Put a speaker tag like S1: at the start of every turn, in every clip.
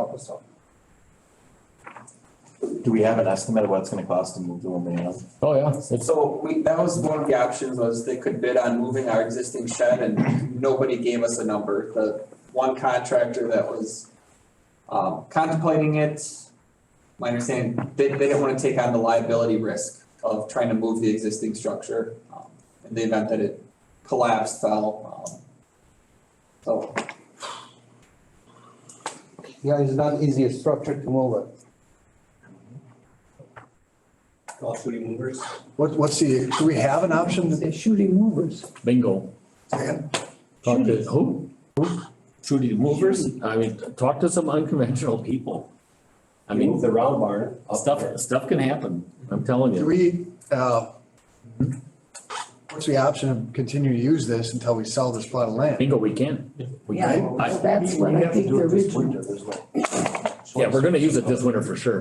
S1: help us out.
S2: Do we have an estimate of what it's gonna cost to move the aluminum?
S3: Oh, yeah, it's,
S1: So we, that was one of the options was they could bid on moving our existing shed and nobody gave us a number. The one contractor that was um contemplating it, my understanding, they they didn't wanna take on the liability risk of trying to move the existing structure. um, In the event that it collapsed, fell, um. So
S4: Yeah, it's not easy structure to move it.
S5: all shooting movers.
S6: What, what's the, do we have an option?
S4: They're shooting movers.
S3: bingo.
S6: Dan?
S3: Talk to, who? Shooty movers, I mean, talk to some unconventional people. I
S5: You move
S3: mean,
S5: the round barn up there.
S3: stuff, stuff can happen, I'm telling
S6: Do
S3: you.
S6: we, uh, what's the option of continuing to use this until we sell this plot of land?
S3: Bingo, we can. We
S7: Yeah,
S3: can. I-
S7: that's what I think the original,
S3: Yeah, we're gonna use it this winter for sure.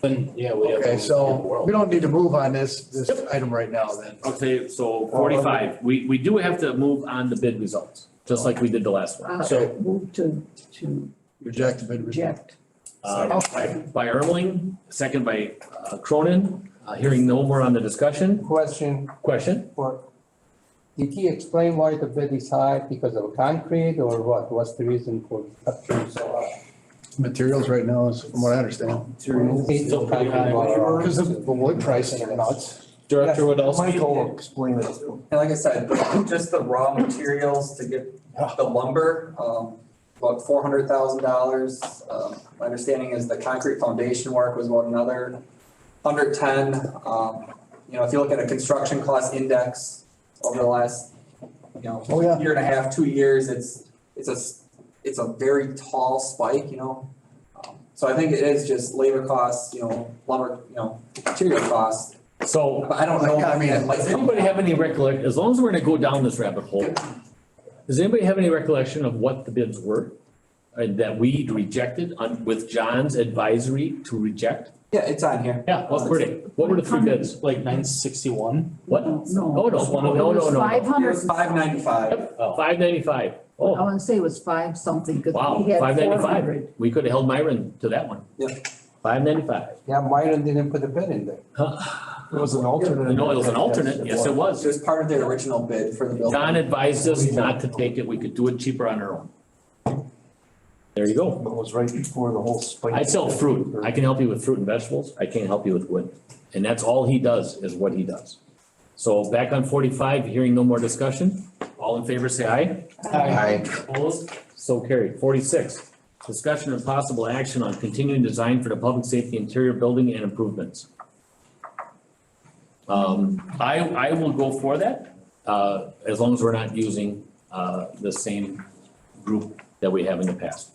S8: Then, yeah, we have.
S6: Okay, so we don't need to move on this, this item right now then.
S3: Okay, so forty-five, we, we do have to move on the bid results, just like we did the last one.
S5: Oh.
S7: uh,
S3: So,
S7: move to, to
S6: Reject the bid.
S7: reject.
S3: uh, by- by Erling, second by uh, Cronin, uh, hearing no more on the discussion,
S4: Question
S3: question?
S4: for, did he explain why the bid is high because of concrete or what? What's the reason for structure so high?
S6: Materials right now is, from what I understand.
S8: Still pretty high.
S6: Because of the wood prices are nuts.
S3: Director Woodall.
S1: Michael
S6: explain it.
S1: And like I said, just the raw materials to get the lumber, um, about four hundred thousand dollars. Um, my understanding is the concrete foundation work was about another hundred ten. Um, you know, if you look at a construction cost index over the last, you know,
S6: Oh, yeah.
S1: year and a half, two years, it's, it's a, s- it's a very tall spike, you know? Um, So I think it is just labor costs, you know, lumber, you know, material costs,
S3: So
S1: but I don't know.
S6: Yeah, I mean,
S1: if that's-
S3: Does anybody have any recollection, as long as we're gonna go down this rabbit hole, does anybody have any recollection of what the bids were? And that we rejected on, with John's advisory to reject?
S1: Yeah, it's on here. Uh,
S8: Yeah,
S3: What were they, what were the three bids?
S8: like nine sixty-one.
S3: What?
S7: No.
S3: Oh, no, no, no, no,
S7: Five
S3: no.
S1: It
S7: hundred.
S1: was five ninety-five.
S3: Five ninety-five.
S7: I
S3: Oh,
S7: wanna say it was five something, cause
S3: wow,
S7: we had
S3: five
S7: four
S3: ninety-five.
S7: hundred.
S3: We could have held Myron to that one.
S1: Yep.
S3: Five ninety-five.
S4: Yeah, Myron didn't put a bid in there.
S6: It was an alternate.
S3: No, it was an alternate. Yes, it
S1: It
S3: was.
S1: was part of their original bid for the building.
S3: John advised us not to take it. We could do it cheaper on our own. There you go.
S6: was right before the whole spike.
S3: I sell fruit. I can help you with fruit and vegetables. I can't help you with wood. And that's all he does, is what he does. So back on forty-five, hearing no more discussion. All in favor, say aye. Opposed? So carried. Forty-six, discussion and possible action on continuing design for the public safety interior building and improvements. Um, I, I will go for that, uh, as long as we're not using, uh, the same group that we have in the past.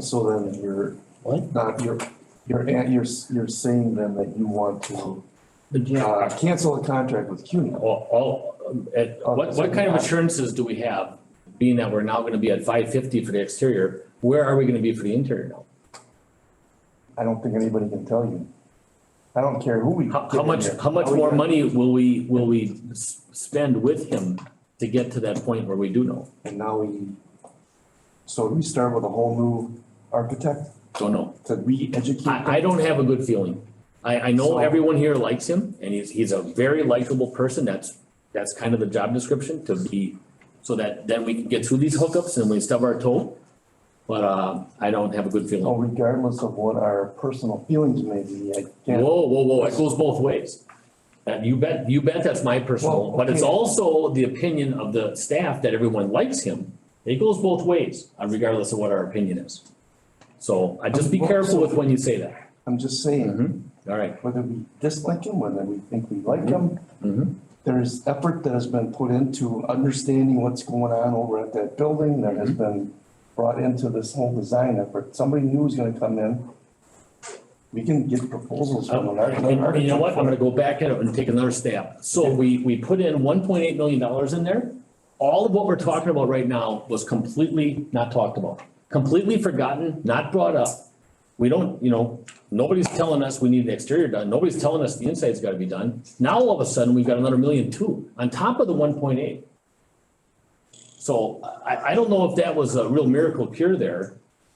S9: So then you're,
S3: What?
S9: not, you're, you're, an- you're, s- you're saying then that you want to, uh, cancel the contract with CUNY.
S3: All, all, um, at, what, what kind of assurances do we have, being that we're now gonna be at five fifty for the exterior, where are we gonna be for the interior now?
S9: I don't think anybody can tell you. I don't care who we.
S3: How,
S9: get
S3: how
S9: in
S3: much,
S9: here.
S3: how much
S9: we
S3: more
S9: gonna-
S3: money will we, will we s- spend with him to get to that point where we do know?
S9: And now we, so we start with a whole new architect
S3: Don't know.
S9: to re-educate.
S3: I, I don't have a good feeling. I, I know
S9: So-
S3: everyone here likes him and he's, he's a very likable person. That's, that's kind of the job description to be, so that then we can get through these hookups and we stub our toe. But, uh, I don't have a good feeling.
S9: So regardless of what our personal feelings may be, I can't.
S3: Whoa, whoa, whoa, it goes both ways. And you bet, you bet that's my personal,
S9: Well,
S3: but it's
S9: okay.
S3: also the opinion of the staff that everyone likes him. It goes both ways, uh, regardless of what our opinion is. So I just be
S9: Well,
S3: careful
S9: so-
S3: with when you say that.
S9: I'm just saying,
S3: Mhm. All right.
S9: whether we dislike him, whether we think we like him,
S3: Mhm.
S9: there's effort that has been put into understanding what's going on over at that building that has
S3: Mm-hmm.
S9: been brought into this whole design effort. Somebody new is gonna come in. We can get proposals from an
S3: Oh, And- and
S9: architect.
S3: You know what? I'm gonna go back at it and take another stab. So we, we put in one point eight million dollars in there. All of what we're talking about right now was completely not talked about, completely forgotten, not brought up. We don't, you know, nobody's telling us we need the exterior done. Nobody's telling us the inside's gotta be done. Now all of a sudden, we've got another million two on top of the one point eight. So I, I don't know if that was a real miracle cure there,